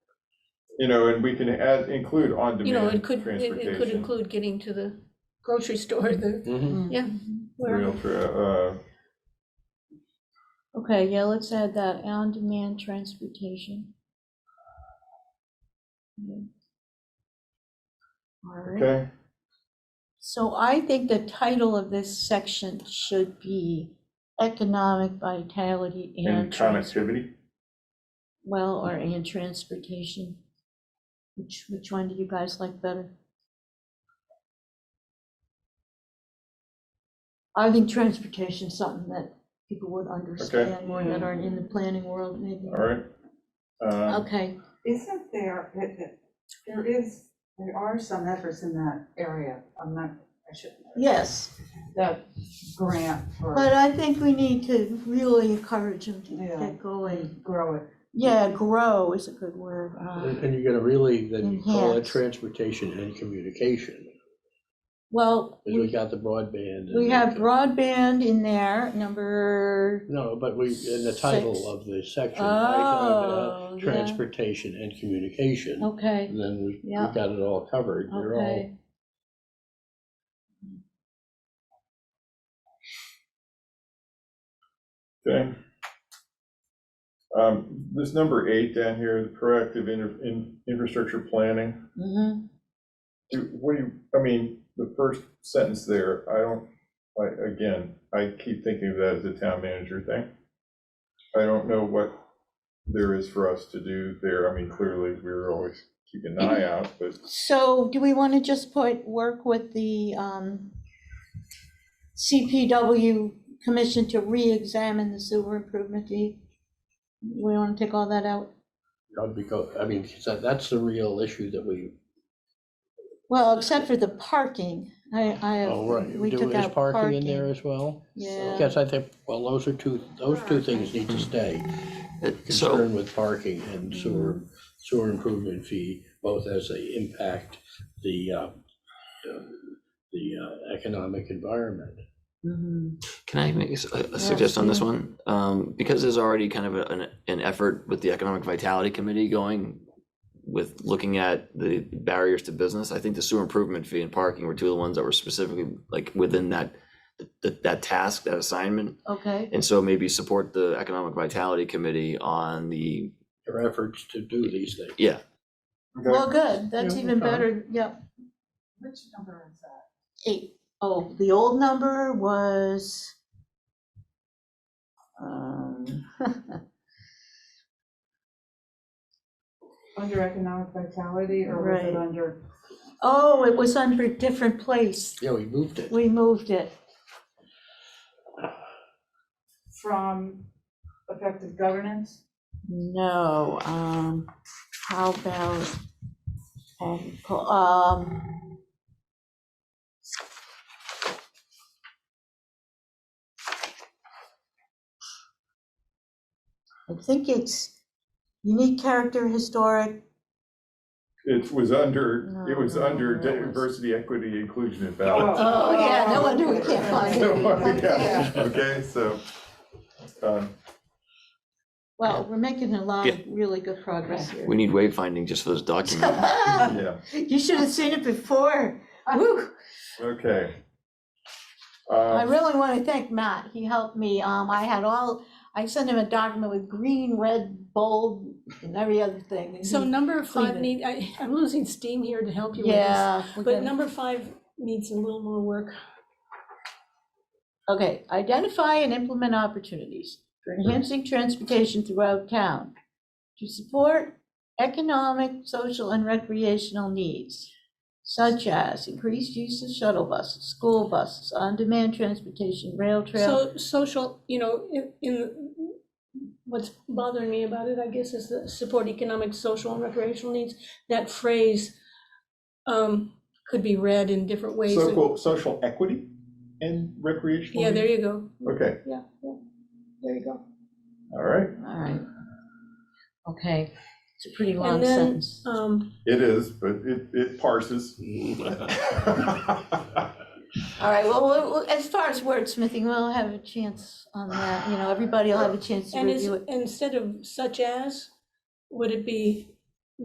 you know, and we can add, include You know, on-demand it could, it- it could transportation. include getting to the grocery store, the, Mhm. Mm-hmm. yeah. wherever. Real, tra- uh, Okay, yeah, let's add that, on-demand transportation. All right, okay, so I think the title of this section should be Economic Vitality and and, Trans- connectivity, well, or and Transportation. Which, which one do you guys like better? I think transportation is something that people would understand, more that aren't in the planning world, maybe. all right? Um, Okay, Isn't there, that- that- there is, there are some efforts in that area, I'm not, I shouldn't, yes, that grant but uh, for, I think we need to really encourage them to Yeah. get going. grow it. Yeah, grow is a good word. And Uh, and you're gonna really then call it Enhance. transportation and communication, Well, 'cause we we got the broadband. and we have the- broadband in there, number, No, but we, in the title Six. of the section, I have, Oh, uh, yeah. transportation and communication. okay, And then we, we Yeah. got it all covered, they're all, okay. Okay. Um, this number eight down here, the proactive inter, in, infrastructure planning. mhm. Do, what do you, I mean, the first sentence there, I don't, I, again, I keep thinking of that as a town manager thing. I don't know what there is for us to do there. I mean, clearly, we were always keeping an eye out, but So do we want to just put, work with the um, CPW commission to re-examine the sewer improvement deed? We want to take all that out? uh, because, I mean, 'cause that- that's the real issue that we, Well, except for the parking, I, oh, I, right. we Do- took is out parking in there parking. as well? Yeah, Yes, I think, well, those are two, those two things need to stay. So, Concern with parking and sewer, sewer improvement fee, both as they impact the, uh, uh, the uh, economic environment. Mm-hmm. can I make s- a a suggestion on this sure. one? Um, Because there's already kind of a- an, an effort with the Economic Vitality Committee going with looking at the barriers to business, I think the sewer improvement fee and parking were two of the ones that were specifically like within that, that, that task, that assignment. okay, And so maybe support the Economic Vitality Committee on the, Their efforts to do these things. yeah, well, good, that's Yeah, even okay. better, yep, Which number is that? eight. Oh, the old number was. um, Under economic vitality, or was Right. it under? Oh, it was under a different place, Yeah, we moved it. we moved it, From effective governance? no, um, how about, um, po- um. I think it's unique character, historic, it was under, it was No, no, under no, it was- diversity, equity, inclusion, and balance. Oh, yeah, no wonder we can't Oh. find it. So, yeah, Yeah. Okay, so, um, well, we're making a lot of Yeah. really good progress here. we need wayfinding just for those documents. yeah, You should have seen it before, woo. okay. I Um, really want to thank Matt. He helped me. Um, I had all, I sent him a document with green, red, bold, and every other thing. and So he- number five it. need, I, I'm losing steam here to help you with this. Yeah. we But can- number five needs a little more work. Okay, identify and implement opportunities for enhancing transportation throughout town to support economic, social, and recreational needs, such as increased use of shuttle buses, school buses, on-demand transportation, rail trail. So, social, you know, in, in, what's bothering me about it, I guess, is the support economic, social, and recreational needs. That phrase, um, could be read in different ways. Social, social equity and recreational. Yeah, there you go. Okay, Yeah, yeah, there you go. all right, All right. Okay, it's a pretty long And then, sentence. um, it is, but it, it parses. All right, well, well, well, as far as wordsmithing, we'll have a chance on that, you know, everybody will have a chance to and is, review it. instead of such as, would it be